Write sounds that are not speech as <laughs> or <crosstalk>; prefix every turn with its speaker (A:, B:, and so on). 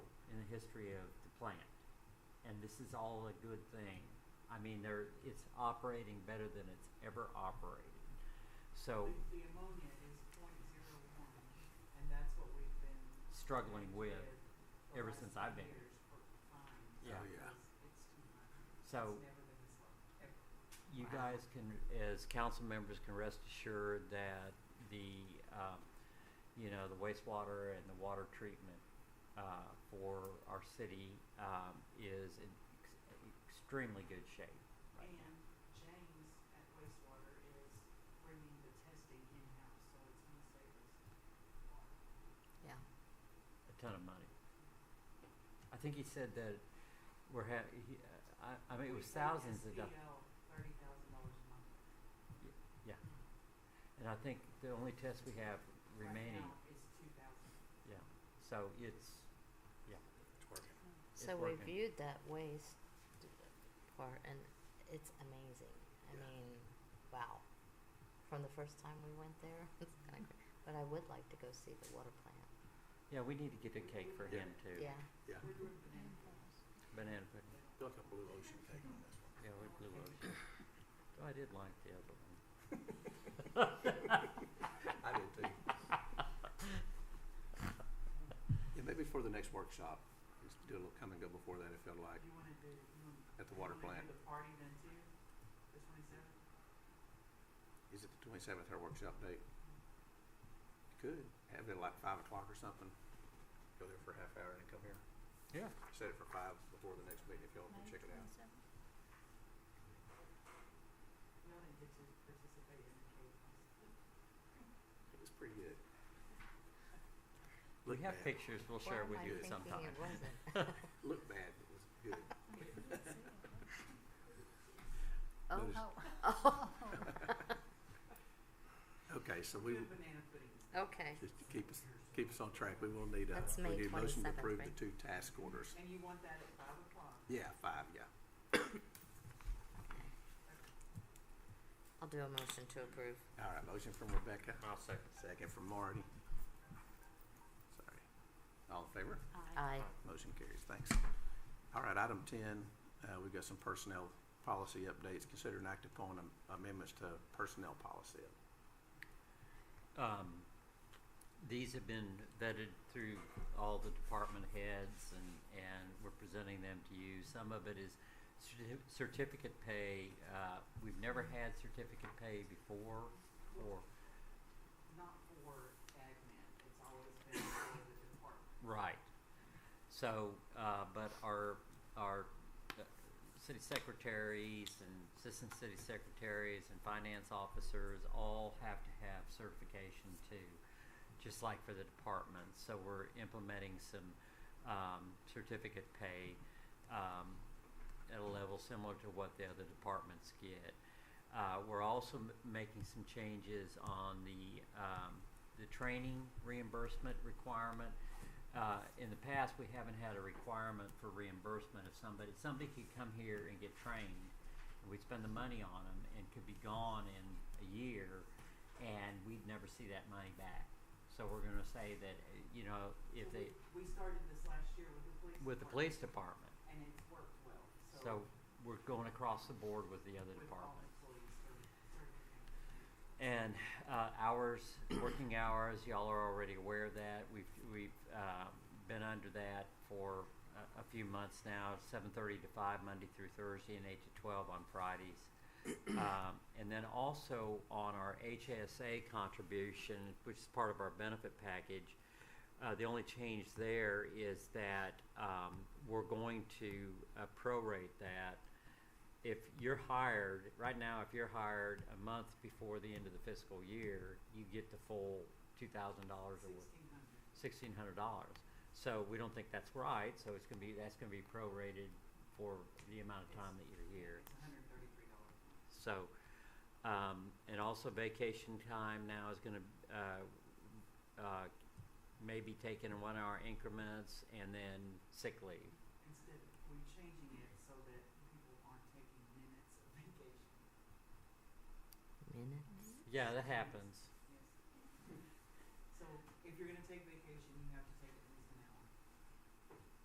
A: history of the plant. And this is all a good thing. I mean, there, it's operating better than it's ever operated. So
B: The the ammonia is point zero one, and that's what we've been.
A: struggling with,
B: the
A: ever
B: last
A: since
B: few
A: I've been
B: years for fines,
A: Yeah. Oh,
C: yeah.
B: because It's too much. It's
A: So-
B: never been this low, ever.
A: you guys can, as council members, can rest assured that the, um, you know, the wastewater and the water treatment uh, for our city um, is in ex- extremely good shape right
B: And James at wastewater is bringing the testing in-house, so it's gonna save us water.
D: Yeah.
A: now. A ton of money. I think he said that we're ha- he, I, I mean, it
B: We
A: was
B: save
A: thousands of dollars.
B: SPL thirty thousand dollars a month.
A: Yeah. And I think the only test we have remaining,
B: Right now, it's two thousand.
A: yeah. So it's, yeah.
C: It's working.
A: It's
D: So we
A: working.
D: viewed that waste part, and it's amazing. I
C: Yeah.
D: mean, wow. From the first time we went there, <laughs> it's kind of. But I would like to go see the water plant.
A: Yeah, we need to get a cake for him too.
D: Yeah.
C: Yeah.
B: We're doing banana farms.
A: Banana pudding.
C: I feel like a blue ocean cake on this one.
A: Yeah, we blew ocean. Oh, I did like the other one.
C: I did Yeah, maybe for the next workshop, just do a little come and go before that, it felt like.
B: You wanna do, you wanna.
C: At the water
B: you wanna
C: plant.
B: do the party then too, the twenty-seventh?
C: Is it the twenty-seventh, our workshop date? Could, have it like five o'clock or something. Go there for a half hour and then come here.
A: Yeah.
C: Set it for five before the next meeting if y'all can check it out.
B: We only get to participate in the cake.
C: It was pretty good.
A: We
C: Looked
A: have
C: bad.
A: pictures we'll share with
C: I
A: you
C: thinking
A: sometime.
D: it wasn't?
C: Looked bad, but it was
D: <laughs>
C: good.
D: oh,
C: Notice-
D: oh.
C: Okay, so we,
B: Doing banana pudding.
D: <laughs> okay.
C: just to keep us, keep us on track, we will need a,
D: That's
C: we
D: May
C: need a motion to
D: 27th,
C: approve the
D: right?
C: two task orders.
B: And you want that at five o'clock?
C: Yeah, five, yeah.
D: I'll do a motion to approve.
C: All right, motion from Rebecca,
A: <laughs> I'll second.
C: second from Marty. Sorry. All in favor?
D: Aye.
C: Motion carries, thanks. All right, item 10, uh, we've got some personnel policy updates. Consider and act upon am- amendments to personnel policy.
A: Um, these have been vetted through all the department heads and, and we're presenting them to you. Some of it is certi- certificate pay. Uh, we've never had certificate pay before or,
B: Not for admin, it's always been for the department.
A: Right. So, uh, but our, our uh, city secretaries and assistant city secretaries and finance officers all have to have certification too, just like for the department. So we're implementing some, um, certificate pay, um, at a level similar to what the other departments get. Uh, we're also m- making some changes on the, um, the training reimbursement requirement. Uh, in the past, we haven't had a requirement for reimbursement if somebody, somebody could come here and get trained, and we'd spend the money on them and could be gone in a year, and we'd never see that money back. So we're gonna say that, uh, you know, if
B: So
A: they,
B: We we started this last year with the police.
A: with the police department,
B: department, And it's worked well, so.
A: so we're going across the board with the other
B: With all
A: departments.
B: employees are certificated.
A: And uh, hours, working hours, y'all are already aware of that. We've, we've uh, been under that for a, a few months now, 7:30 to 5 Monday through Thursday and 8 to 12 on Fridays. Um, And then also on our HSA contribution, which is part of our benefit package, uh, the only change there is that um, we're going to uh, prorate that if you're hired, right now, if you're hired a month before the end of the fiscal year, you get the full two thousand dollars or
B: Sixteen hundred.
A: sixteen hundred dollars. So we don't think that's right, so it's gonna be, that's gonna be prorated for the amount of time that you're here.
B: It's hundred and thirty-three dollars.
A: So, um, and also vacation time now is gonna, uh, uh, maybe taken in one hour increments and then sick leave.
B: Instead, we're changing it so that people aren't taking minutes of vacation.
D: Minutes.
A: Yeah, that happens.
B: Yes. So if you're gonna take vacation,